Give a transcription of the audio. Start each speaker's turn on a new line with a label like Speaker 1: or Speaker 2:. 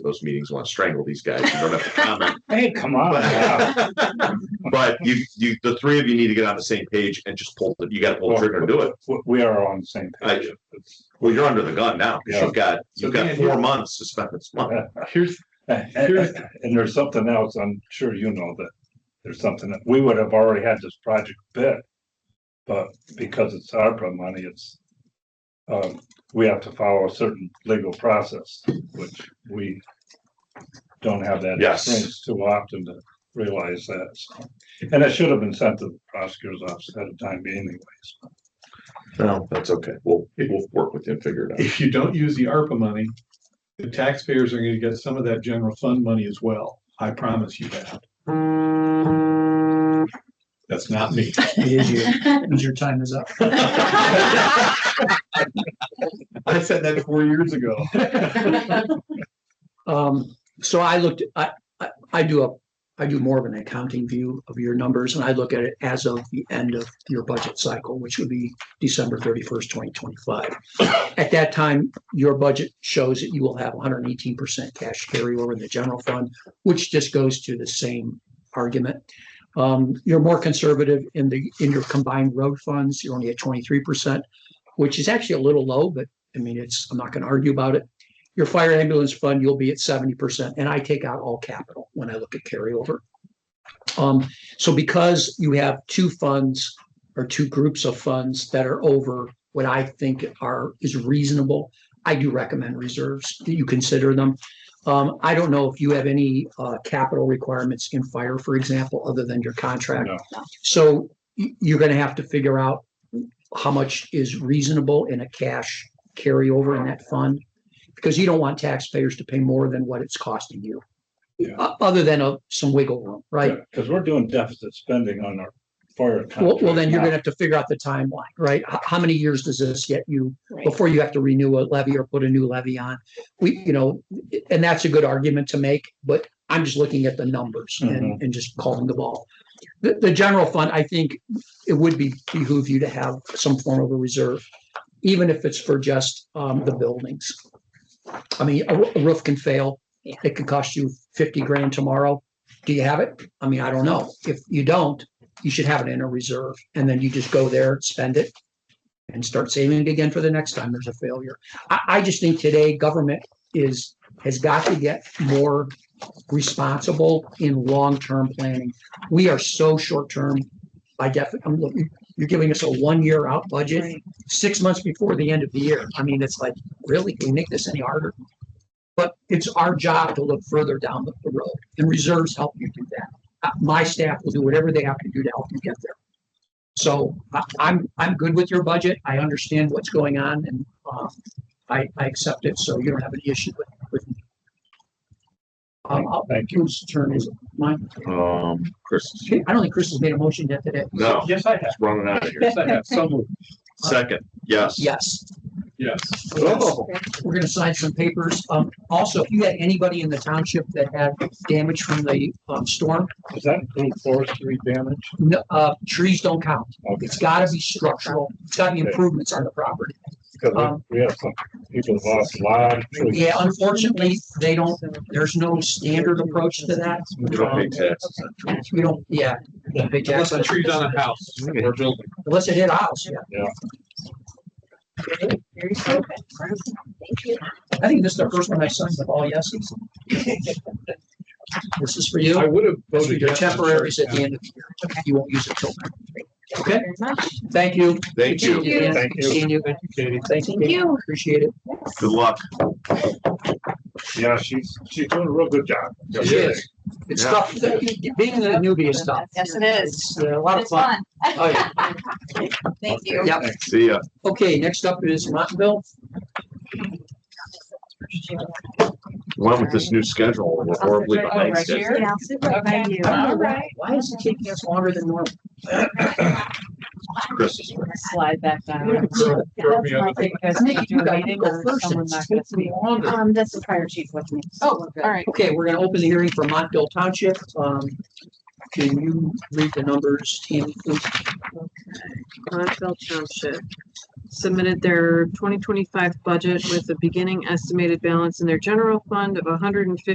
Speaker 1: those meetings want to strangle these guys. You don't have to comment.
Speaker 2: Hey, come on. now.
Speaker 1: But you, you, the three of you need to get on the same page and just pull, the- you gotta pull the trigger and do it.
Speaker 2: We- We are on the same page.
Speaker 1: Well, you're under the gun now, because you've got, you've got four months to spend this money.
Speaker 3: Here's, here's,
Speaker 2: And there's something else, I'm sure you know that there's something that we would have already had this project bid. But because it's ARPA money, it's um, we have to follow a certain legal process, which we don't have that
Speaker 1: Yes.
Speaker 2: experience too often to realize that. so. And it should have been sent to the prosecutor's office at a time being anyways.
Speaker 1: No, that's okay. We'll, we'll work with you and figure it out.
Speaker 3: if you don't use the ARPA money, the taxpayers are gonna get some of that general fund money as well. I promise you that. That's not me.
Speaker 4: your time is up.
Speaker 3: I said that four years ago.
Speaker 4: Um, so I looked, I, I, I do a, I do more of an accounting view of your numbers and I look at it as of the end of your budget cycle, which would be December thirty-first, twenty twenty-five. At that time, your budget shows that you will have one hundred and eighteen percent cash carryover in the general fund, which just goes to the same argument. Um, you're more conservative in the, in your combined road funds, you're only at twenty-three percent, which is actually a little low, but I mean, it's, I'm not gonna argue about it your fire ambulance fund, you'll be at seventy percent, and I take out all capital when I look at carryover. Um, so because you have two funds or two groups of funds that are over what I think are, is reasonable, I do recommend reserves, that you consider them. Um, I don't know if you have any, uh, capital requirements in fire, for example, other than your contract.
Speaker 2: No.
Speaker 4: So y- you're gonna have to figure out how much is reasonable in a cash carryover in that fund because you don't want taxpayers to pay more than what it's costing you.
Speaker 2: Yeah.
Speaker 4: O- Other than a, some wiggle room, right?
Speaker 2: Because we're doing deficit spending on our fire.
Speaker 4: Well, well, then
Speaker 2: contract now.
Speaker 4: you're gonna have to figure out the timeline, right? How, how many years does this get you
Speaker 5: Right.
Speaker 4: before you have to renew a levy or put a new levy on? We, you know, and that's a good argument to make, but I'm just looking at the numbers and, and just calling the ball. The, the general fund, I think it would be behoove you to have some form of a reserve, even if it's for just, um, the buildings. I mean, a roo- a roof can fail.
Speaker 5: Yeah.
Speaker 4: It could cost you fifty grand tomorrow. Do you have it? I mean, I don't know. If you don't, you should have it in a reserve and then you just go there, spend it and start saving it again for the next time there's a failure. I, I just think today government is, has got to get more responsible in long-term planning. We are so short-term by defi, I'm looking, you're giving us a one-year out budget,
Speaker 5: Right.
Speaker 4: six months before the end of the year. I mean, it's like, really, can we make this any harder? But it's our job to look further down the the road and reserves help you do that. Uh, My staff will do whatever they have to do to help you get there. So I, I'm, I'm good with your budget. I understand what's going on and, uh, I, I accept it. So you don't have any issue with, with me. Um, I'll-
Speaker 2: Thank
Speaker 4: whose turn is it? Mine?
Speaker 1: Um, Chris, is
Speaker 4: I don't think Chris has made a motion yet today.
Speaker 1: no,
Speaker 3: Yes, I have.
Speaker 1: it's running out of here.
Speaker 3: Yes, I have. So moved.
Speaker 1: Second, yes.
Speaker 4: Yes.
Speaker 3: Yes.
Speaker 4: Yes. We're gonna sign some papers. Um, also, if you had anybody in the township that had damage from the, um, storm,
Speaker 2: Does that include forestry damage?
Speaker 4: no, uh, trees don't count.
Speaker 2: Okay.
Speaker 4: It's gotta be structural. It's gotta be improvements on the property.
Speaker 2: Because
Speaker 4: Um,
Speaker 2: we we have some people have lost a lot of trees.
Speaker 4: Yeah, unfortunately, they don't, there's no standard approach to that.
Speaker 1: We don't pay taxes.
Speaker 4: We don't, yeah. Big
Speaker 3: Unless a
Speaker 4: tax,
Speaker 3: tree's on a house or building.
Speaker 4: Unless it hit a house, yeah.
Speaker 5: Very simple. Thank you.
Speaker 4: I think this is the first one I signed with all yeses. This is for
Speaker 3: I
Speaker 4: you.
Speaker 3: would have voted.
Speaker 4: Your
Speaker 3: yes.
Speaker 4: temporaries at the end of the year. You won't use it till. Okay.
Speaker 5: Very much.
Speaker 4: Thank you.
Speaker 1: Thank you.
Speaker 4: Dan.
Speaker 2: Thank you.
Speaker 4: Seeing you.
Speaker 3: Thank you, Katie.
Speaker 4: Thank
Speaker 5: Thank you.
Speaker 4: Appreciate it.
Speaker 1: Good luck.
Speaker 2: Yeah, she's, she's doing a real good job.
Speaker 4: She is. It's
Speaker 1: Yeah.
Speaker 4: tough. Being a newbie is tough.
Speaker 5: Yes, it is.
Speaker 4: It's uh, a lot of
Speaker 5: It's
Speaker 4: fun.
Speaker 5: fun.
Speaker 4: Oh, yeah.
Speaker 5: Thank you.
Speaker 4: Yep.
Speaker 1: See ya.
Speaker 4: Okay, next up is Montville.
Speaker 1: Went with this new schedule. We're horribly behind schedule.
Speaker 5: Yeah, I'll sit right by you.
Speaker 4: I don't know why-
Speaker 5: Alright.
Speaker 4: Why is it taking us longer than normal?
Speaker 1: Chris is right.
Speaker 6: slide back down.
Speaker 2: Throw- throw me on the-
Speaker 6: Because
Speaker 4: I think you
Speaker 6: you do a
Speaker 4: guys
Speaker 6: meeting
Speaker 4: go
Speaker 6: or
Speaker 4: first and
Speaker 6: someone
Speaker 4: it's
Speaker 6: not gonna
Speaker 4: taking
Speaker 6: speak.
Speaker 4: longer.
Speaker 5: Um, that's the fire chief with me. so
Speaker 6: Oh,
Speaker 5: we're good.
Speaker 6: all right.
Speaker 4: Okay, we're gonna open the hearing for Montville Township. Um, can you read the numbers, Tammy, please?
Speaker 6: Montville Township. submitted their twenty twenty-five budget with a beginning estimated balance in their general fund of hundred and fifty